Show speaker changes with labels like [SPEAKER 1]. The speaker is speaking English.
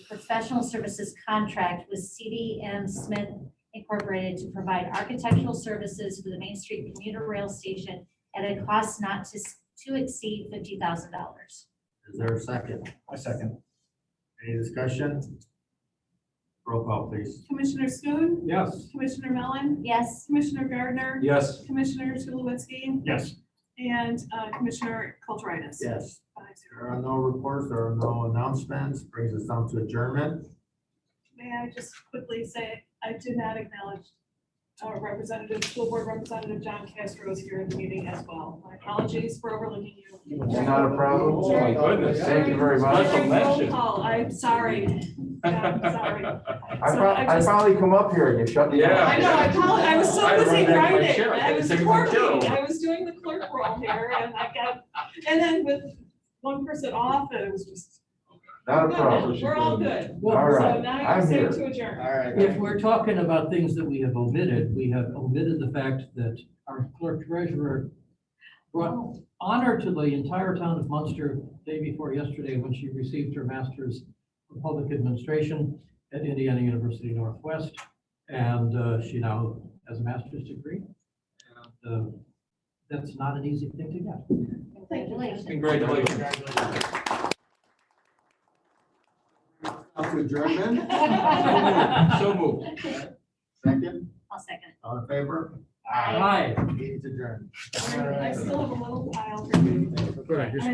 [SPEAKER 1] professional services contract with CDM Smith Incorporated to provide architectural services for the Main Street commuter rail station at a cost not to, s- to exceed fifty thousand dollars.
[SPEAKER 2] Is there a second?
[SPEAKER 3] I second.
[SPEAKER 2] Any discussion? Roll call, please.
[SPEAKER 4] Commissioner Schoon,
[SPEAKER 3] Yes.
[SPEAKER 4] Commissioner Mellon,
[SPEAKER 1] Yes,
[SPEAKER 4] Commissioner Gardner,
[SPEAKER 3] Yes.
[SPEAKER 4] Commissioner Tulowitzki,
[SPEAKER 3] Yes.
[SPEAKER 4] and uh, Commissioner Kulturitis.
[SPEAKER 2] Yes.
[SPEAKER 4] Five zero.
[SPEAKER 2] There are no reports, there are no announcements, brings us down to adjournment.
[SPEAKER 4] May I just quickly say, I did not acknowledge uh, Representative, School Board Representative John Castro is here in the meeting as well. My apologies for overlooking you.
[SPEAKER 2] Not a problem.
[SPEAKER 5] Oh, my goodness.
[SPEAKER 2] Thank you very much.
[SPEAKER 5] Special
[SPEAKER 4] During roll
[SPEAKER 5] mention.
[SPEAKER 4] call, I'm sorry. Yeah, I'm sorry.
[SPEAKER 2] I
[SPEAKER 4] So
[SPEAKER 2] prob-
[SPEAKER 4] I
[SPEAKER 2] I
[SPEAKER 4] just-
[SPEAKER 2] probably come up here and you shut me down.
[SPEAKER 5] Yeah.
[SPEAKER 4] I know, I apologize, I was
[SPEAKER 5] I
[SPEAKER 4] so
[SPEAKER 5] run
[SPEAKER 4] busy
[SPEAKER 5] back to my
[SPEAKER 4] writing,
[SPEAKER 5] chair, I
[SPEAKER 4] I
[SPEAKER 5] gotta
[SPEAKER 4] was
[SPEAKER 5] take my
[SPEAKER 4] clerking,
[SPEAKER 5] job.
[SPEAKER 4] I was doing the clerk role here, and I got, and then with one person off, and it was just,
[SPEAKER 2] Not a problem.
[SPEAKER 4] no, we're all good.
[SPEAKER 2] All
[SPEAKER 6] Well,
[SPEAKER 2] right,
[SPEAKER 4] So now
[SPEAKER 2] I'm
[SPEAKER 4] you're safe
[SPEAKER 2] here.
[SPEAKER 4] to adjourn.
[SPEAKER 2] All right.
[SPEAKER 6] if we're talking about things that we have omitted, we have omitted the fact that our clerk treasurer brought honor to the entire town of Munster day before yesterday when she received her master's of public administration at Indiana University Northwest. And uh, she now has a master's degree. And, uh, That's not an easy thing to get.
[SPEAKER 1] Oh, congratulations.
[SPEAKER 5] Congratulations.
[SPEAKER 2] Up to adjournment,
[SPEAKER 5] So moved.
[SPEAKER 2] second,
[SPEAKER 1] I'll second.
[SPEAKER 2] all in favor?
[SPEAKER 1] Aye.
[SPEAKER 6] Hi.
[SPEAKER 2] Meeting's adjourned.
[SPEAKER 4] I still have a little pile for you.
[SPEAKER 2] Good.